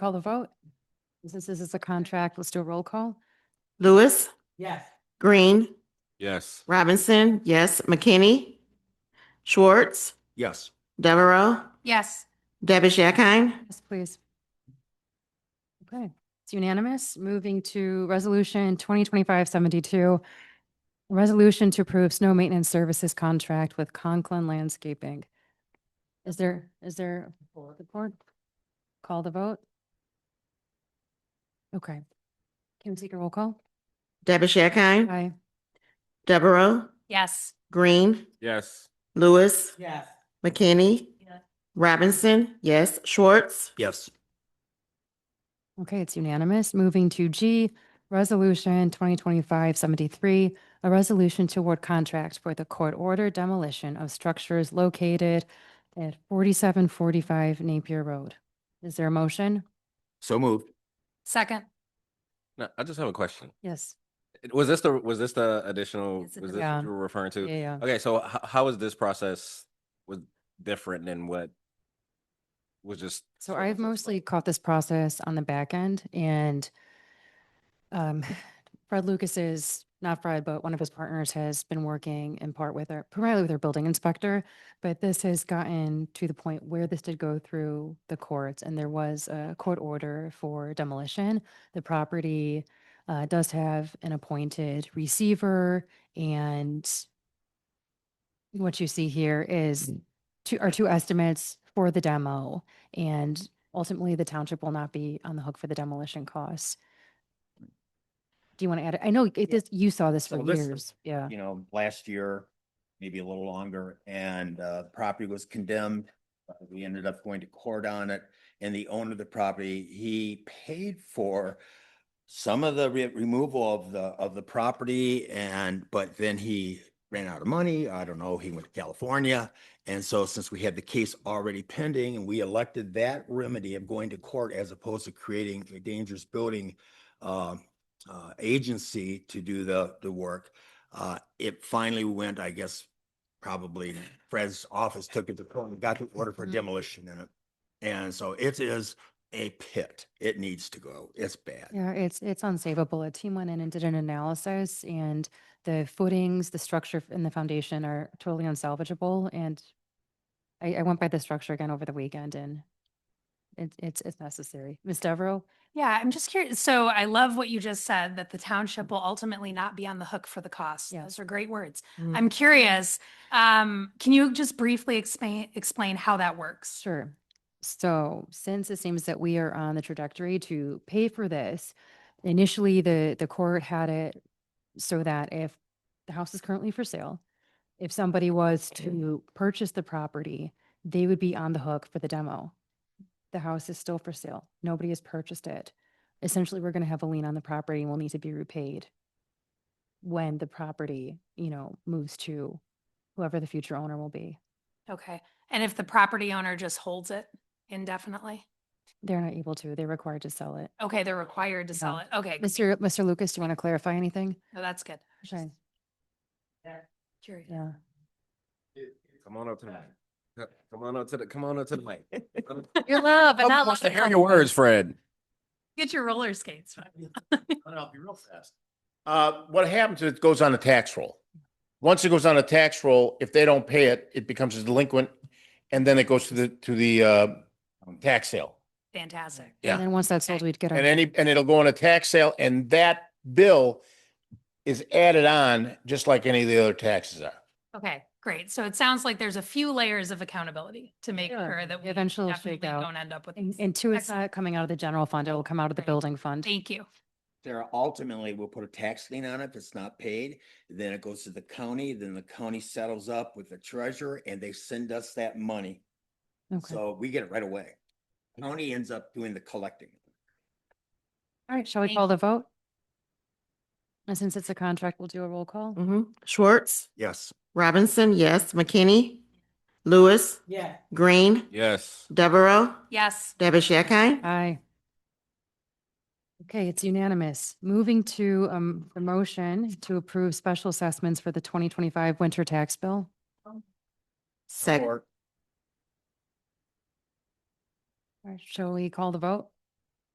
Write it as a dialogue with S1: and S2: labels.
S1: Call the vote. Since this is a contract, let's do a roll call.
S2: Lewis,
S3: Yes.
S2: Green,
S4: Yes.
S2: Robinson, yes, McKinney, Schwartz,
S4: Yes.
S2: Devereaux,
S5: Yes.
S2: Dabish Akine,
S1: Yes, please. Okay, it's unanimous. Moving to resolution 2025-72. Resolution to approve snow maintenance services contract with Conklin Landscaping. Is there, is there support? Call the vote. Okay. Can we take a roll call?
S2: Dabish Akine,
S1: Aye.
S2: Devereaux,
S5: Yes.
S2: Green,
S4: Yes.
S2: Lewis,
S3: Yes.
S2: McKinney,
S5: Yes.
S2: Robinson, yes, Schwartz,
S4: Yes.
S1: Okay, it's unanimous. Moving to G, Resolution 2025-73, a resolution to award contract for the court order demolition of structures located at 4745 Napier Road. Is there a motion?
S4: So moved.
S5: Second.
S4: No, I just have a question.
S1: Yes.
S4: Was this the, was this the additional, was
S5: It's a-
S4: this
S1: Yeah.
S4: what you were referring
S1: Yeah,
S4: to?
S1: yeah.
S4: Okay, so h- how is this process was different than what was just?
S1: So
S4: spoken
S1: I've
S4: to us about?
S1: mostly caught this process on the back end and um, Fred Lucas is, not Fred, but one of his partners has been working in part with our, primarily with our building inspector. But this has gotten to the point where this did go through the courts and there was a court order for demolition. The property uh, does have an appointed receiver and what you see here is
S6: Mm.
S1: two, are two estimates for the demo. And ultimately, the township will not be on the hook for the demolition costs. Do you want to add, I know it is, you saw this
S6: So
S1: for
S6: this is-
S1: years, yeah.
S6: you know, last year, maybe a little longer, and uh, the property was condemned. Uh, We ended up going to court on it, and the owner of the property, he paid for some of the re- removal of the, of the property and, but then he ran out of money. I don't know, he went to California. And so since we had the case already pending and we elected that remedy of going to court as opposed to creating a dangerous building uh, uh, agency to do the, the work, uh, it finally went, I guess, probably Fred's office took it to court and got the order for
S1: Mhm.
S6: demolition in it. And so it is a pit. It needs to go. It's bad.
S1: Yeah, it's, it's unsavable. A team went in and did an analysis and the footings, the structure and the foundation are totally unsalvageable. And I, I went by the structure again over the weekend and it, it's, it's necessary. Ms. Devereaux?
S5: Yeah, I'm just curious. So I love what you just said, that the township will ultimately not be on the hook for the cost.
S1: Yeah.
S5: Those are great words.
S1: Mm.
S5: I'm curious, um, can you just briefly explain, explain how that works?
S1: Sure. So since it seems that we are on the trajectory to pay for this, initially the, the court had it so that if the house is currently for sale, if somebody was to purchase the property, they would be on the hook for the demo. The house is still for sale. Nobody has purchased it. Essentially, we're going to have a lien on the property and will need to be repaid when the property, you know, moves to whoever the future owner will be.
S5: Okay. And if the property owner just holds it indefinitely?
S1: They're not able to, they're required to sell it.
S5: Okay, they're required to sell it. Okay, good.
S1: Mr. Mr. Lucas, do you want to clarify anything?
S5: no, that's good.
S1: Okay,
S5: Curious.
S1: yeah.
S4: Come on up to the, mic. Co- come on up to the, come on up to the mic.
S5: You're loud, but
S4: Nobody
S5: not
S4: wants to
S5: loud.
S4: hear your words, Fred.
S5: Get your roller skates.
S7: And I'll be real fast. Uh, what happens is it goes on a tax roll. Once it goes on a tax roll, if they don't pay it, it becomes a delinquent and then it goes to the, to the, uh, tax sale.
S5: Fantastic.
S7: Yeah.
S1: And then once that's sold, we'd get
S7: And
S1: our,
S7: any, and it'll go on a tax sale and that bill is added on just like any of the other taxes are.
S5: Okay, great. So it sounds like there's a few layers of accountability to make
S1: Sure.
S5: sure that we
S1: Eventually it'll
S5: definitely
S1: shake out.
S5: don't end up with.
S1: and
S5: these.
S1: and two, it's
S5: Excellent.
S1: not coming out of the general fund, it will come out of the
S5: Right.
S1: building fund.
S5: Thank you.
S6: Sarah, ultimately, we'll put a tax lien on it if it's not paid. Then it goes to the county, then the county settles up with the treasurer and they send us that money.
S1: Okay, all
S6: So we get it right away. County ends up doing the collecting.
S1: right, shall we
S5: Thank
S1: call the vote? And since it's a contract, we'll do a roll call.
S5: Mm-hmm.
S2: mhm, Schwartz,
S6: Yes.
S2: Robinson, yes, McKinney, Lewis,
S3: Yes.
S2: Green,
S4: Yes.
S2: Devereaux,
S5: Yes.
S2: Dabish Akine,
S1: Aye. Okay, it's unanimous. Moving to um, the motion to approve special assessments for the 2025 winter tax bill.
S2: second,
S1: All right, Shall we call the vote?